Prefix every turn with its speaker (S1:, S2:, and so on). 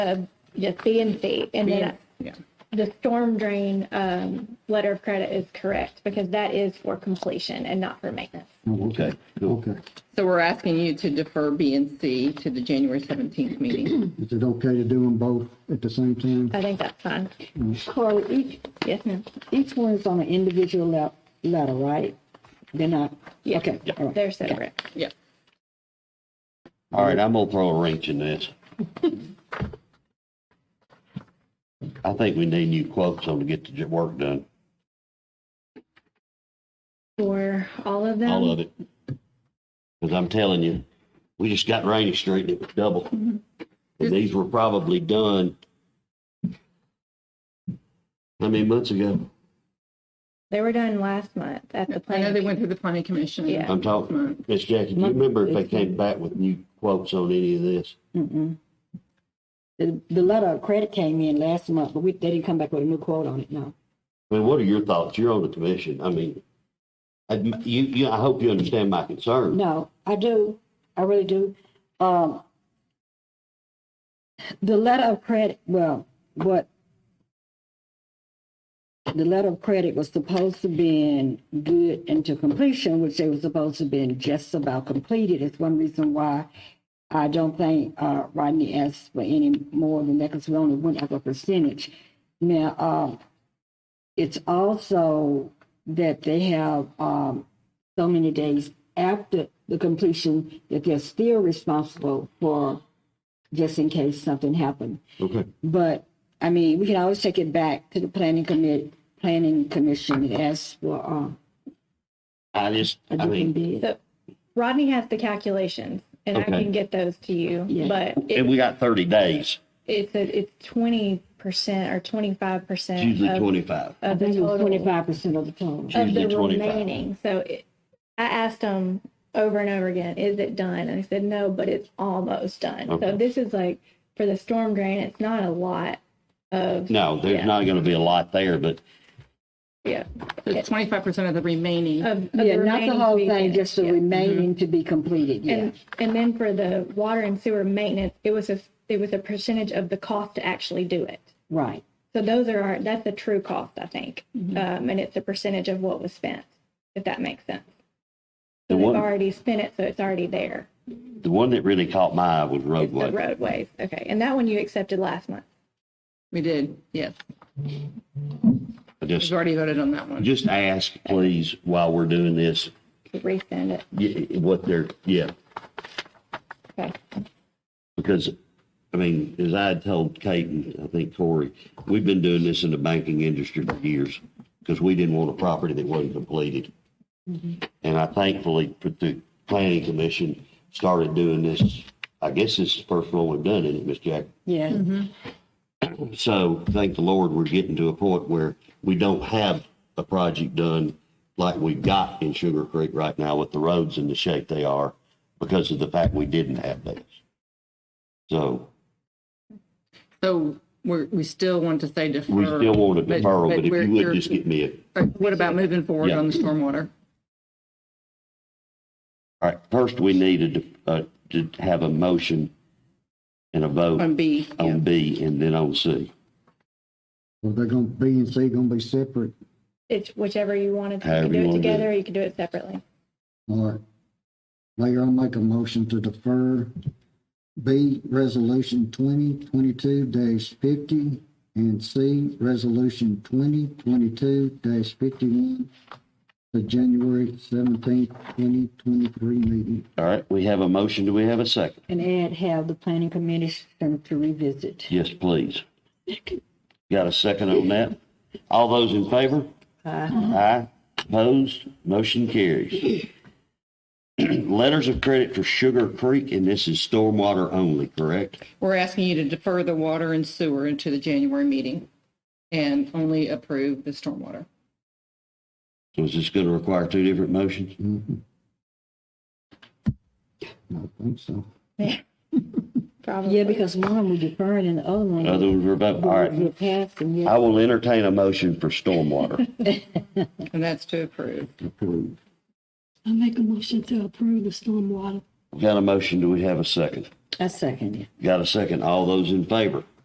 S1: just B and C. And then
S2: Yeah.
S1: the storm drain um, letter of credit is correct because that is for completion and not for maintenance.
S3: Oh, Okay, cool.
S4: Okay.
S2: So we're asking you to defer B and C to the January 17th meeting.
S4: Is it okay to do them both at the same time?
S1: I think that's fine.
S5: Carla, each,
S1: Yes, ma'am.
S5: each one is on an individual le- letter, right? They're not,
S1: Yeah.
S5: okay, all right.
S1: They're separate.
S2: Yeah.
S3: All right, I'm gonna throw a wrench in this. I think we need new quotes on to get the j- work done,
S1: For all of them?
S3: all of it. Cause I'm telling you, we just got Rainy Street and it was double. And these were probably done. How many months ago?
S1: They were done last month at the
S2: I know they
S1: planning.
S2: went through the planning commission.
S1: Yeah.
S3: I'm talking, Miss Jackie, do you remember if they came back with new quotes on any of this?
S5: Mm-mm. The, the letter of credit came in last month, but we, they didn't come back with a new quote on it, no.
S3: I mean, what are your thoughts? You're on the commission. I mean, I, you, you, I hope you understand my concern.
S5: No, I do, I really do. Um, the letter of credit, well, what, the letter of credit was supposed to be in good into completion, which they were supposed to be in just about completed. It's one reason why I don't think, uh, Rodney asked for any more than that, because we only went up a percentage. Now, um, it's also that they have, um, so many days after the completion that they're still responsible for just in case something happened.
S3: Okay.
S5: But, I mean, we can always take it back to the planning commit, planning commission and ask for, uh,
S3: I just,
S5: a
S3: I
S5: different
S3: mean,
S5: bid.
S1: So Rodney has the calculations and I
S3: Okay.
S1: can get those to you,
S5: Yeah.
S1: but
S3: and
S1: it-
S3: we got thirty days,
S1: it's, a- it's twenty percent or twenty-five
S3: It's
S1: percent
S3: usually
S1: of
S3: twenty-five.
S5: I
S1: of the
S5: think it was
S1: total.
S5: twenty-five percent of the total.
S3: Sure.
S1: of the
S3: Tuesday, 25.
S1: remaining. So it, I asked them over and over again, is it done? And they said, no, but it's almost done.
S3: Okay.
S1: So this is like for the storm drain, it's not a lot of,
S3: No, there's
S1: Yeah.
S3: not gonna be a lot there, but
S1: yeah, Oh.
S2: So it's 25% of the remaining.
S1: of, of
S5: Yeah, not the
S1: remaining
S5: whole
S1: weekend.
S5: thing, just the
S1: Yeah.
S5: remaining to be completed, yeah.
S1: And, and then for the water and sewer maintenance, it was a, it was a percentage of the cost to actually do it.
S5: Right,
S1: So those are our, that's the true cost, I think.
S5: Mm-hmm.
S1: Um, and it's a percentage of what was spent, if that makes sense.
S3: The
S1: So they've
S3: one-
S1: already spent it, so it's already there.
S3: the one that really caught my eye was
S1: It's the
S3: roadway.
S1: roadways. Okay. And that one you accepted last month.
S2: We did, yes.
S3: I
S2: We've
S3: Just,
S2: already voted on that one.
S3: just ask, please, while we're doing this,
S1: Resend it.
S3: y- what they're, yeah,
S1: Okay.
S3: because, I mean, as I had told Kate and I think Corey, we've been doing this in the banking industry for years because we didn't want a property that wasn't completed. And I thankfully, for the planning commission, started doing this. I guess this is the first one we've done, isn't it, Ms. Jack?
S5: yeah.
S3: So thank the Lord, we're getting to a point where we don't have a project done like we've got in Sugar Creek right now with the roads in the shape they are because of the fact we didn't have those. So
S2: So we're, we still want to say defer.
S3: we still want a
S2: but-
S3: deferral, but if
S2: we're-
S3: you would
S2: you're-
S3: just get me a,
S2: but What about moving forward
S3: Yeah.
S2: on the stormwater?
S3: all right, first we needed uh, to have a motion and a vote
S2: On B, Um, yeah.
S3: on B and then on C,
S4: Well, they're gonna, B and C gonna be separate,
S1: It's whichever you wanted. You
S3: However
S1: can
S3: you
S1: do it
S3: wanna do it.
S1: together or you can do it separately.
S4: all right. Mayor, I'll make a motion to defer B, Resolution twenty twenty-two fifty, and C, Resolution twenty twenty-two fifty-one, the January seventeenth, twenty twenty-three meeting.
S3: all right? We have a motion, do we have a second?
S5: And add have the planning commission to revisit.
S3: Yes, please. Got a second on that? All those in favor? Aye. Opposed? Motion carries. Letters of credit for Sugar Creek, and this is stormwater only, correct?
S2: We're asking you to defer the water and sewer into the January meeting and only approve the stormwater.
S3: So is this going to require two different motions?
S4: I think so.
S1: Probably.
S5: Yeah, because one we deferring and the other one.
S3: Other ones are about, all
S5: We're
S3: right.
S5: passing, yeah.
S3: I will entertain a motion for stormwater.
S2: And that's to approve.
S4: Approved.
S6: I make a motion to approve the stormwater
S3: Got a motion, do we have a second?
S5: I second it.
S3: Got a second, all those in favor?